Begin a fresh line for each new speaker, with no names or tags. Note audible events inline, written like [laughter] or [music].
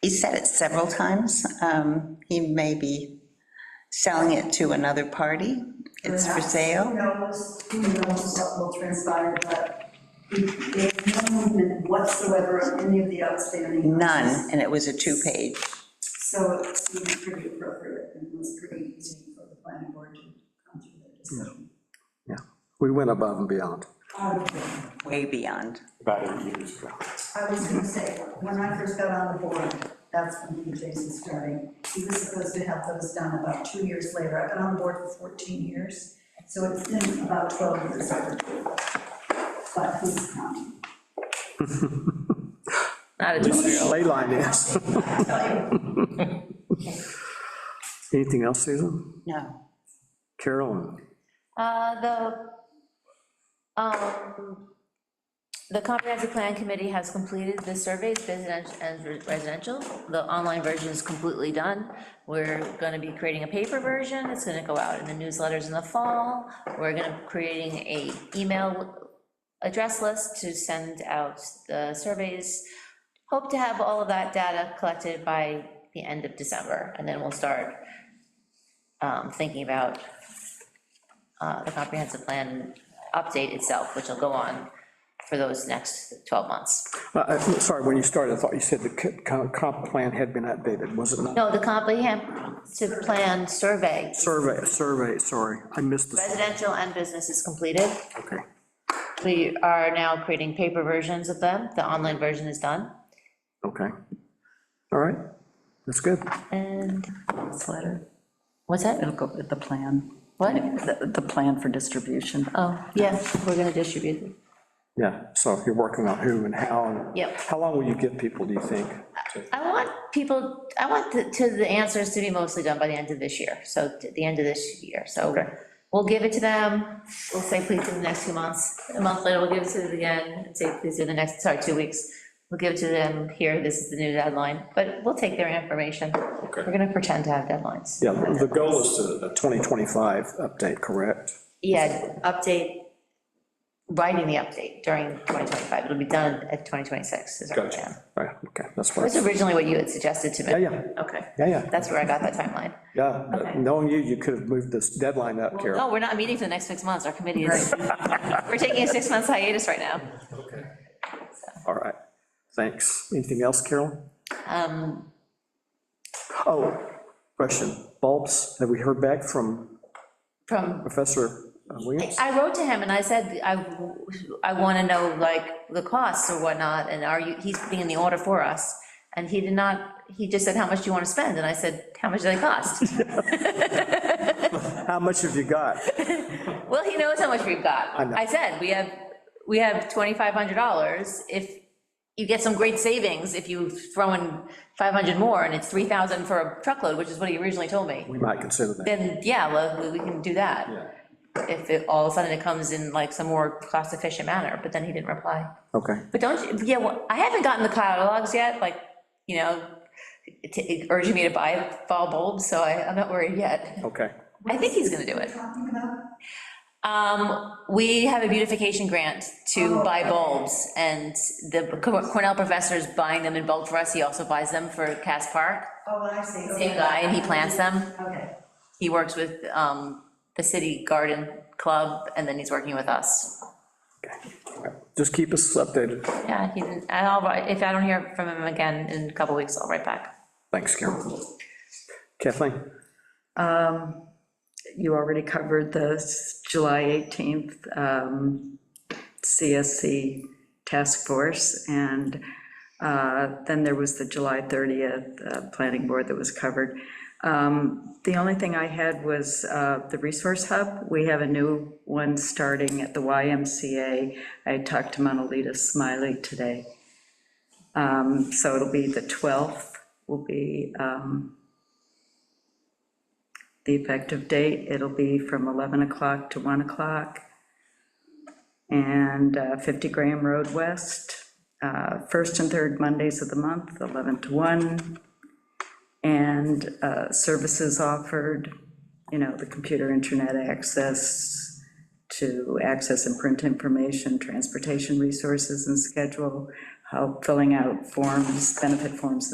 he said it several times. Um, He may be selling it to another party. It's for
Perhaps. Who
sale.
knows, who knows what will transpire, but there's no movement whatsoever on any of the outstanding. items.
None, and it was a two-page.
So it seemed pretty appropriate and was pretty easy for the planning board to come through their discussion.
Yeah, we went above and beyond.
I would think.
way beyond.
about eight years ago.
Um, I was gonna say, when I first got on the board, that's when the Jason started. He was supposed to have those done about two years later. I've been on the board for 14 years, so it's been about 12 years overdue. But who's counting?
Not a two-year-old.
Ley line is. [laughs] Anything else, Susan?
No.
Carolyn?
Uh, The, um, the comprehensive plan committee has completed the surveys, residential and residential. The online version is completely done. We're gonna be creating a paper version, it's gonna go out in the newsletters in the fall. We're gonna, creating a email address list to send out the surveys. Hope to have all of that data collected by the end of December, and then we'll start um, thinking about uh, the comprehensive plan update itself, which will go on for those next 12 months.
Uh, uh, Sorry, when you started, I thought you said the co- co- comp plan had been updated, was it not?
No, the comprehensive plan survey,
Survey, survey, sorry, I missed the,
residential and business is completed.
okay.
We are now creating paper versions of them. The online version is done.
Okay. All right, that's good.
And
this letter.
what's that?
It'll go with the plan,
What?
the, the plan for distribution.
Oh, yeah, we're going to distribute it.
Yeah, so you're working on who and how. and-
Yep.
How long will you give people, do you think?
I want people, I want the- to, the answers to be mostly done by the end of this year, so t- the end of this year, so we'll give it to them, we'll say please in the next two months, a month later, we'll give it to them again, and say please in the next, sorry, two weeks. We'll give it to them here, this is the new deadline, but we'll take their information. We're gonna pretend to have deadlines.
Yeah, the goal is to a 2025 update, correct?
Yeah, update, writing the update during 2025, it'll be done at 2026 is our
Gotcha.
plan.
All right, okay, that's what,
That's
I-
originally what you had suggested to me.
yeah, yeah,
Okay,
yeah, yeah,
that's where I got that timeline.
yeah. but Knowing you, you could have moved this deadline up, Carol.
No, we're not meeting for the next six months, our committee is, [laughs] we're taking a six months hiatus right now.
All right, thanks. Anything else, Carol?
Um,
Oh, question, bulbs, have we heard back from
From,
Professor uh, Williams?
I wrote to him and I said, I, I want to know like the costs or whatnot, and are you, he's putting in the order for us. And he did not, he just said, how much do you want to spend? And I said, how much do they cost?
How much have you got?
Well, he knows how much we've got.
I know.
I said, we have, we have $2,500. If you get some great savings, if you throw in 500 more and it's 3,000 for a truckload, which is what he originally told me.
We might consider that.
then, yeah, well, we- we can do that. If it, all of a sudden it comes in like some more cost-efficient manner, but then he didn't reply.
Okay,
But don't, you- yeah, well, I haven't gotten the catalogs yet, like, you know, t- urging me to buy fall bulbs, so I, I'm not worried yet.
okay,
I think he's gonna do it.
Talking about
Um, we have a beautification grant to buy bulbs, and the Cor- Cornell professor is buying them in bulk for us, he also buys them for Cass Park.
Oh, I see.
Same guy, and he plants them.
Okay,
He works with um, the city garden club, and then he's working with us.
just keep us updated.
Yeah, he didn't, and I'll, write- if I don't hear from him again in a couple weeks, I'll write back.
Thanks, Carol. Kathleen?
You already covered the s- July 18th um, CSC task force, and uh, then there was the July 30th uh, planning board that was covered. Um, The only thing I had was uh, the resource hub. We have a new one starting at the YMCA. I talked to Monalita Smiley today. Um, So it'll be the 12th will be um, the effective date, it'll be from 11 o'clock to 1 o'clock. And uh, 50 Graham Road West, uh, first and third Mondays of the month, 11 to 1. And uh, services offered, you know, the computer internet access to access and print information, transportation resources and schedule, help filling out forms, benefit forms and